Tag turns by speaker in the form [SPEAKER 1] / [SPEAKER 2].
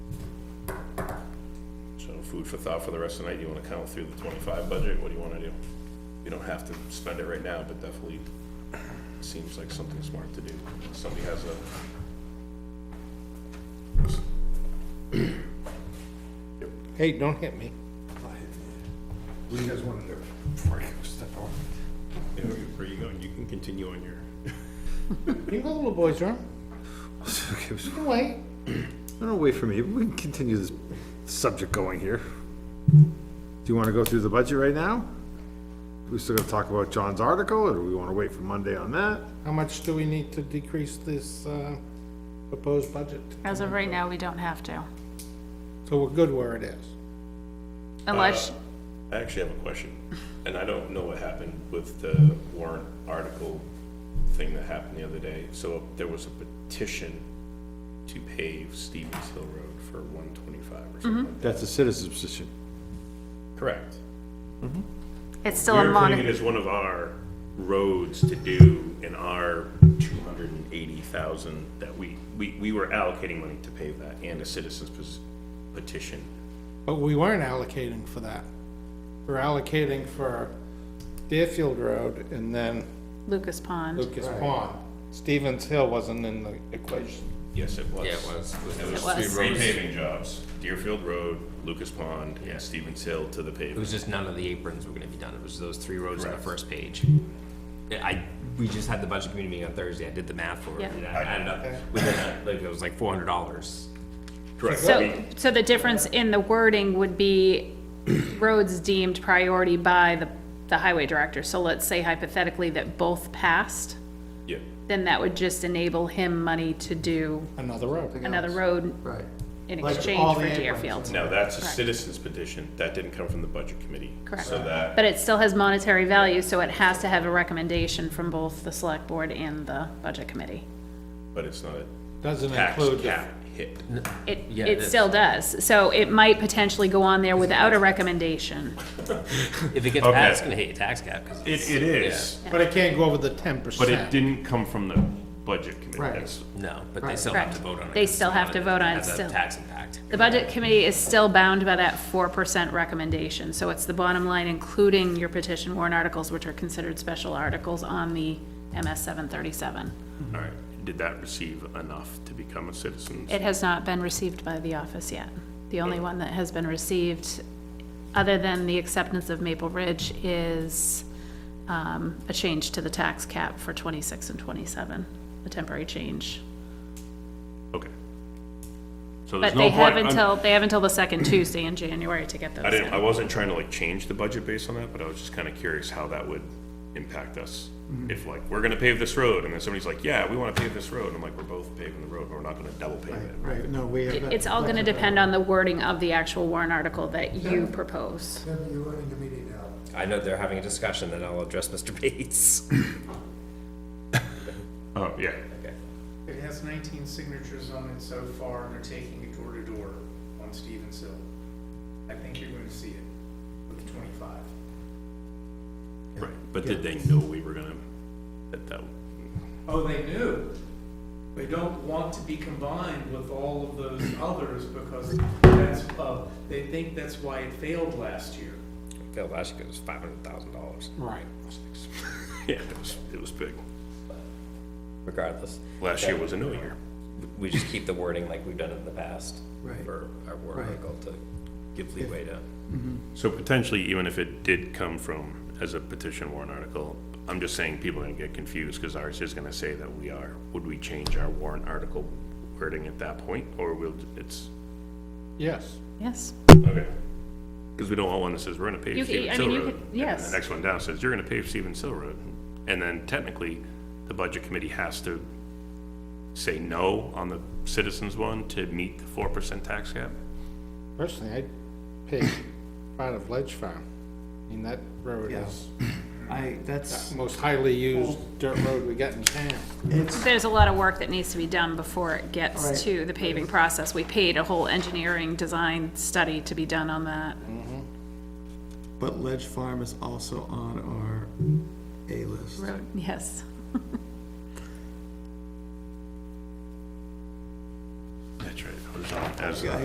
[SPEAKER 1] food for thought for the rest of the night. You wanna count through the twenty-five budget? What do you wanna do? You don't have to spend it right now, but definitely seems like something smart to do. Somebody has a,
[SPEAKER 2] Hey, don't hit me.
[SPEAKER 3] What do you guys want to do before I go step off?
[SPEAKER 1] where you going? You can continue on your.
[SPEAKER 2] You got a little boy's room.
[SPEAKER 3] Okay, so-
[SPEAKER 2] Go away.
[SPEAKER 3] No, no, wait for me. We can continue this subject going here. Do you want to go through the budget right now? We still gonna talk about John's article, or do we want to wait for Monday on that?
[SPEAKER 2] How much do we need to decrease this uh, proposed budget?
[SPEAKER 4] As of right now, we don't have to,
[SPEAKER 2] So we're good where it is.
[SPEAKER 1] Uh,
[SPEAKER 4] unless,
[SPEAKER 1] I actually have a question, and I don't know what happened with the warrant article thing that happened the other day. So there was a petition to pave Stevens Hill Road for one twenty-five or something.
[SPEAKER 3] That's a citizen's position.
[SPEAKER 1] Correct.
[SPEAKER 4] it's still a
[SPEAKER 1] We're putting it
[SPEAKER 4] mon,
[SPEAKER 1] as one of our roads to do in our two hundred and eighty thousand that we, we, we were allocating money to pave that and a citizens pe- petition.
[SPEAKER 2] But we weren't allocating for that. We're allocating for Deerfield Road and then
[SPEAKER 4] Lucas Pond,
[SPEAKER 2] Lucas Pond. Stevens Hill wasn't in the equation.
[SPEAKER 1] Yes, it was.
[SPEAKER 5] Yeah, it was.
[SPEAKER 1] It
[SPEAKER 4] It was.
[SPEAKER 1] was three paving jobs, Deerfield Road, Lucas Pond, and Stevens Hill to the
[SPEAKER 5] It
[SPEAKER 1] pavement.
[SPEAKER 5] was just none of the aprons were gonna be done. It was those three rows on the
[SPEAKER 1] Correct.
[SPEAKER 5] first page. Yeah, I, we just had the budget committee meeting on Thursday. I did the math for it.
[SPEAKER 4] Yeah.
[SPEAKER 5] and I added up, within, a- like, it was like four hundred dollars.
[SPEAKER 1] Correct.
[SPEAKER 4] so, so the difference in the wording would be roads deemed priority by the, the highway director, so let's say hypothetically that both passed,
[SPEAKER 1] Yeah,
[SPEAKER 4] then that would just enable him money to do
[SPEAKER 2] Another road.
[SPEAKER 4] another road
[SPEAKER 6] Right.
[SPEAKER 4] in
[SPEAKER 6] Like
[SPEAKER 4] exchange
[SPEAKER 6] all
[SPEAKER 4] for
[SPEAKER 6] the aprons.
[SPEAKER 4] Deerfield.
[SPEAKER 1] now that's a
[SPEAKER 4] Correct.
[SPEAKER 1] citizens petition, that didn't come from the budget committee.
[SPEAKER 4] Correct.
[SPEAKER 1] So that,
[SPEAKER 4] But it still has monetary value, so it has to have a recommendation from both the select board and the budget committee.
[SPEAKER 1] but it's not a
[SPEAKER 2] Doesn't
[SPEAKER 1] tax
[SPEAKER 2] include,
[SPEAKER 1] cap hit.
[SPEAKER 4] It,
[SPEAKER 5] Yeah,
[SPEAKER 4] it
[SPEAKER 5] that's-
[SPEAKER 4] still does, so it might potentially go on there without a recommendation.
[SPEAKER 5] If it gets
[SPEAKER 1] Okay.
[SPEAKER 5] passed, it's gonna hit your tax cap, cause
[SPEAKER 1] It,
[SPEAKER 5] it's,
[SPEAKER 1] it is,
[SPEAKER 2] but it can't go over the ten
[SPEAKER 1] but it
[SPEAKER 2] percent.
[SPEAKER 1] didn't come from the budget committee.
[SPEAKER 2] Right.
[SPEAKER 1] That's-
[SPEAKER 5] no, but they still have to vote on it.
[SPEAKER 4] They
[SPEAKER 5] 'cause it's
[SPEAKER 4] still have
[SPEAKER 5] not
[SPEAKER 4] to
[SPEAKER 5] a-
[SPEAKER 4] vote on it
[SPEAKER 5] has a
[SPEAKER 4] still.
[SPEAKER 5] Tax impact.
[SPEAKER 4] The budget committee is still bound by that four percent recommendation, so it's the bottom line, including your petition warrant articles, which are considered special articles on the MS seven thirty-seven.
[SPEAKER 1] All right, did that receive enough to become a citizen?
[SPEAKER 4] It has not been received by the office yet. The only one that has been received, other than the acceptance of Maple Ridge, is um, a change to the tax cap for 26 and 27, a temporary change.
[SPEAKER 1] Okay. So there's
[SPEAKER 4] But
[SPEAKER 1] no
[SPEAKER 4] they have
[SPEAKER 1] point, I'm-
[SPEAKER 4] until, they have until the second Tuesday in January to get those
[SPEAKER 1] I didn't, I
[SPEAKER 4] in.
[SPEAKER 1] wasn't trying to like change the budget based on that, but I was just kind of curious how that would impact us.
[SPEAKER 6] Mm-hmm.
[SPEAKER 1] If like, we're gonna pave this road, and then somebody's like, yeah, we wanna pave this road, and I'm like, we're both paving the road, but we're not gonna double pave it.
[SPEAKER 6] Right, no, we have. that
[SPEAKER 4] It's all going to depend on the wording of the actual warrant article that you propose.
[SPEAKER 6] flexibility. Tim, you're running the meeting now.
[SPEAKER 5] I know they're having a discussion and I'll address Mr. Bates.
[SPEAKER 1] Oh, yeah.
[SPEAKER 7] It has nineteen signatures on it so far, and they're taking it door to door on Stevens Hill. I think you're going to see it with the twenty-five.
[SPEAKER 1] Right, but did they know we were gonna, that, that,
[SPEAKER 7] Oh, they knew. They don't want to be combined with all of those others because that's, uh, they think that's why it failed last year.
[SPEAKER 5] Phil last year it was five hundred thousand dollars
[SPEAKER 2] Right.
[SPEAKER 1] yeah, it was, it was big.
[SPEAKER 5] regardless.
[SPEAKER 1] Last year was a no year.
[SPEAKER 5] We just keep the wording like we've done it in the past.
[SPEAKER 6] Right.
[SPEAKER 5] For our warrant
[SPEAKER 6] Right.
[SPEAKER 5] article to give leeway to.
[SPEAKER 1] So potentially, even if it did come from as a petition warrant article, I'm just saying people are gonna get confused, because ours is gonna say that we are, would we change our warrant article wording at that point, or will, it's,
[SPEAKER 2] Yes.
[SPEAKER 4] Yes,
[SPEAKER 1] okay? Because we don't want one that says, we're gonna
[SPEAKER 4] You
[SPEAKER 1] pave
[SPEAKER 4] could-
[SPEAKER 1] Stevens
[SPEAKER 4] I mean,
[SPEAKER 1] Hill
[SPEAKER 4] you
[SPEAKER 1] Road.
[SPEAKER 4] could-
[SPEAKER 1] and then
[SPEAKER 4] yes.
[SPEAKER 1] The next one down says, you're gonna pave Stevens Hill Road, and then technically, the budget committee has to say no on the citizens one to meet the four percent tax cap?
[SPEAKER 2] Personally, I'd pick part of Ledge Farm. I mean, that road
[SPEAKER 6] Yeah.
[SPEAKER 2] is
[SPEAKER 6] I, that's,
[SPEAKER 2] the most highly used dirt road we got in town.
[SPEAKER 6] it's,
[SPEAKER 4] there's a lot of work that needs to be done before it
[SPEAKER 6] Right.
[SPEAKER 4] gets to the paving process. We paid a whole engineering design study to be done on that.
[SPEAKER 6] but Ledge Farm is also on our A list.
[SPEAKER 4] Road, yes.
[SPEAKER 1] That's right. I was on- I was-